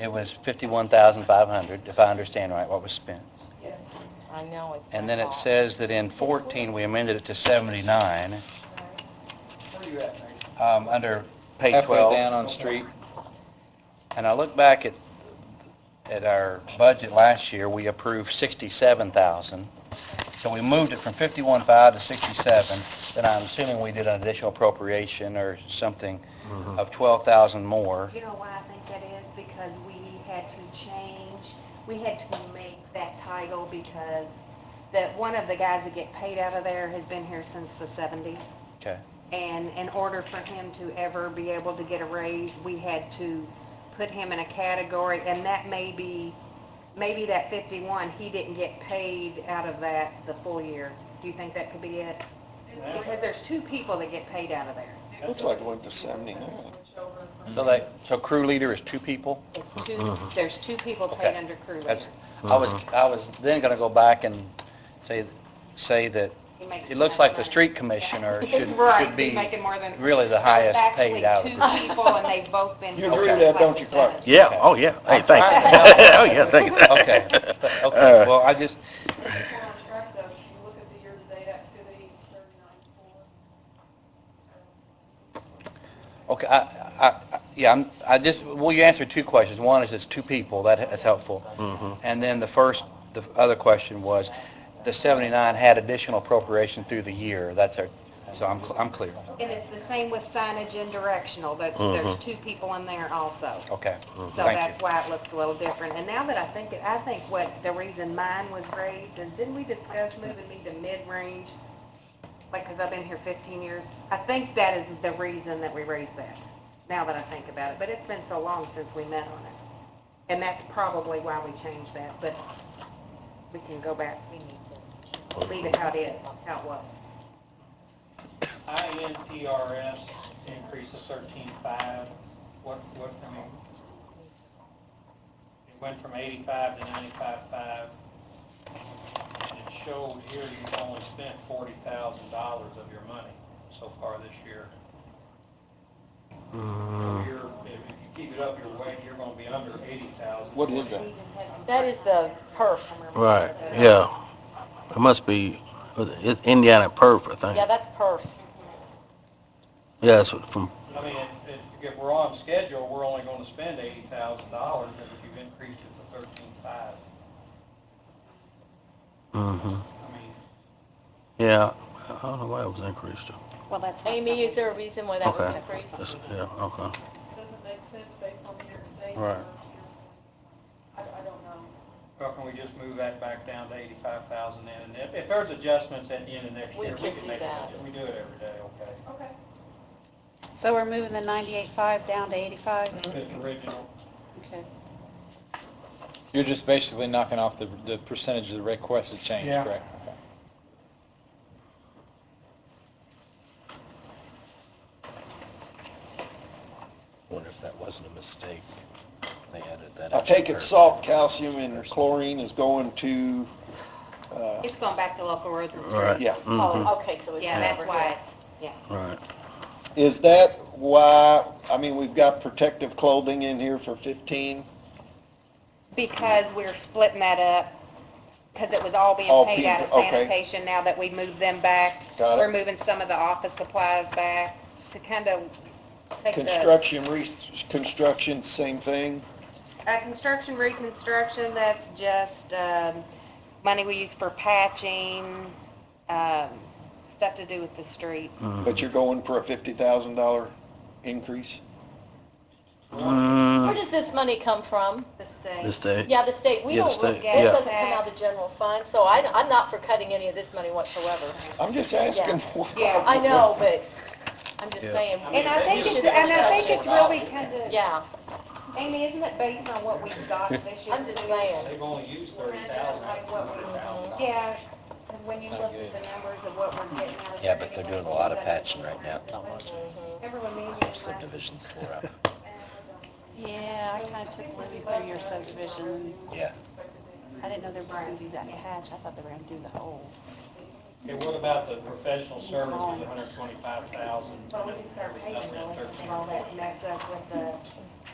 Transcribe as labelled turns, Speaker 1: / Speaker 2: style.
Speaker 1: It was 51,500, if I understand right, what was spent.
Speaker 2: Yes, I know it's.
Speaker 1: And then it says that in 14, we amended it to 79,
Speaker 3: Where you at, Nate?
Speaker 1: um, under page
Speaker 4: Halfway
Speaker 1: 12.
Speaker 4: down on street,
Speaker 1: And I look back at, at our budget last year, we approved 67,000. So we moved it from 51.5 to 67, then I'm assuming we did an additional appropriation or something of 12,000 more.
Speaker 5: You know why I think that is? Because we had to change, we had to make that title because that one of the guys that get paid out of there has been here since the seventies.
Speaker 1: Okay.
Speaker 5: And in order for him to ever be able to get a raise, we had to put him in a category and that may be, maybe that fifty-one, he didn't get paid out of that the full year. Do you think that could be it? Because there's two people that get paid out of there.
Speaker 4: Looks like it went to 79.
Speaker 1: So that, so crew leader is two people?
Speaker 5: It's two, there's two people paid
Speaker 1: Uh-huh. Okay.
Speaker 5: under crew leader.
Speaker 1: That's, I was, I was then gonna go back and say, say that
Speaker 5: He makes
Speaker 1: it looks
Speaker 5: enough
Speaker 1: like the
Speaker 5: money.
Speaker 1: street commissioner should,
Speaker 5: Right,
Speaker 1: should
Speaker 5: he's
Speaker 1: be
Speaker 5: making more than-
Speaker 1: really the
Speaker 5: There's
Speaker 1: highest paid out of the
Speaker 5: Actually, two
Speaker 1: group.
Speaker 5: people, and they've both been.
Speaker 4: You agree
Speaker 1: with
Speaker 4: that, don't you, Clark?
Speaker 6: Yeah, oh, yeah, hey, thank you. Oh, yeah, thank you.
Speaker 1: Okay, okay, well, I just,
Speaker 2: If we're on track though, if you look at the year-to-date activity, it's thirty-nine four.
Speaker 1: okay, I, I, I- yeah, I'm, I just, well, you answered two questions. One is it's two people, that, that's helpful.
Speaker 6: Mhm.
Speaker 1: And then the first, the other question was, the 79 had additional appropriation through the year, that's our, so I'm, cl- I'm clear,
Speaker 5: And it's the same with signage and directional, that's, there's two people in there also.
Speaker 1: okay.
Speaker 5: So
Speaker 1: Thank you.
Speaker 5: that's why it looks a little different. And now that I think, it, I think what the reason mine was raised is, didn't we discuss moving me to mid-range? Like, because I've been here 15 years. I think that is the reason that we raised that, now that I think about it. But it's been so long since we met on it. And that's probably why we changed that, but we can go back. We need to leave it how it is, how it was.
Speaker 3: INPRS increase of thirteen-five, what, what, I mean, it went from eighty-five to ninety-five-five, and it showed here you've only spent forty thousand dollars of your money so far this year. So
Speaker 4: Hmm.
Speaker 3: you're, if if you keep it up your way, you're gonna be under eighty thousand.
Speaker 4: what is that?
Speaker 2: That is the perf.
Speaker 6: Right, yeah. It must be, it's Indiana Perth, I
Speaker 2: Yeah,
Speaker 6: think.
Speaker 2: that's perf.
Speaker 6: Yeah, it's from,
Speaker 3: I mean, if- if, if we're on schedule, we're only gonna spend eighty thousand dollars, and if you've increased it to thirteen-five,
Speaker 6: mhm.
Speaker 3: I mean,
Speaker 6: yeah, I don't know why it was increased.
Speaker 5: Well, that's.
Speaker 2: Amy, is there a reason why that was
Speaker 6: Okay.
Speaker 2: increased?
Speaker 6: It's- Yeah, okay.
Speaker 7: doesn't make sense based on the year-to-date.
Speaker 6: Right.
Speaker 7: I, I don't know.
Speaker 3: Well, can we just move that back down to eighty-five thousand then? And if, if there's adjustments at the end of next
Speaker 2: We
Speaker 3: year, we
Speaker 2: can
Speaker 3: can
Speaker 2: do
Speaker 3: make
Speaker 2: that.
Speaker 3: it. We do it every day, okay?
Speaker 7: Okay.
Speaker 2: So we're moving the 98.5 down to 85?
Speaker 3: It's original.
Speaker 2: Okay.
Speaker 4: You're just basically knocking off the, the percentage of the requested change,
Speaker 3: Yeah.
Speaker 4: correct? Okay.
Speaker 8: Wonder if that wasn't a mistake. They added that.
Speaker 9: I
Speaker 8: extra
Speaker 9: take it
Speaker 8: curve.
Speaker 9: salt, calcium, and chlorine is going to, uh,
Speaker 5: It's going back to local roads and
Speaker 6: Right.
Speaker 5: streets.
Speaker 9: yeah.
Speaker 7: Oh,
Speaker 6: Mhm.
Speaker 2: okay, so
Speaker 5: Yeah, that's why it's
Speaker 6: Right.
Speaker 9: Is that why, I mean, we've got protective clothing in here for 15?
Speaker 5: Because we're splitting that up, because it was all being
Speaker 9: All
Speaker 5: paid out of
Speaker 9: people, okay.
Speaker 5: sanitation, now that we moved them back.
Speaker 9: Got it.
Speaker 5: We're moving some of the office supplies back to kind of take the,
Speaker 9: Construction, reconstruction, same thing?
Speaker 5: uh, construction, reconstruction, that's just, um, money we use for patching, um, stuff to do with the streets.
Speaker 6: Mm. Mm-hmm.
Speaker 9: But you're going for a $50,000 increase?
Speaker 6: Mm,
Speaker 7: Where does this money come from?
Speaker 5: The state.
Speaker 6: Mm-hmm. This day.
Speaker 7: Yeah, the state, we
Speaker 6: Yeah, the
Speaker 7: don't, this
Speaker 6: state, yeah.
Speaker 7: doesn't come out of the general fund, so I, I'm not for cutting any of this money whatsoever.
Speaker 9: I'm just asking.
Speaker 5: Yeah,
Speaker 7: I know, but I'm just
Speaker 6: Yeah.
Speaker 7: saying,
Speaker 5: And I think it's, and I think it's really kind of,
Speaker 7: yeah,
Speaker 5: Amy, isn't it based on what we've got this year?
Speaker 7: I'm just saying.
Speaker 3: They've only used thirty
Speaker 5: Like what we-
Speaker 3: thousand.
Speaker 5: Yeah, 'cause when you look at the numbers of what we're getting out of.
Speaker 8: Yeah, but they're doing a lot of
Speaker 5: everybody,
Speaker 8: patching right now. Not much.
Speaker 7: Mm-hmm.
Speaker 5: Everyone needs it.
Speaker 8: Subdivisions tore up.
Speaker 2: Yeah, I kind of took a look at three-year subdivision.
Speaker 8: Yeah.
Speaker 2: I didn't know they were going to do that patch. I thought they were going to do the whole.
Speaker 3: Okay, what about the professional services, $125,000?
Speaker 5: Well, we can start paying bills and all that mess up with the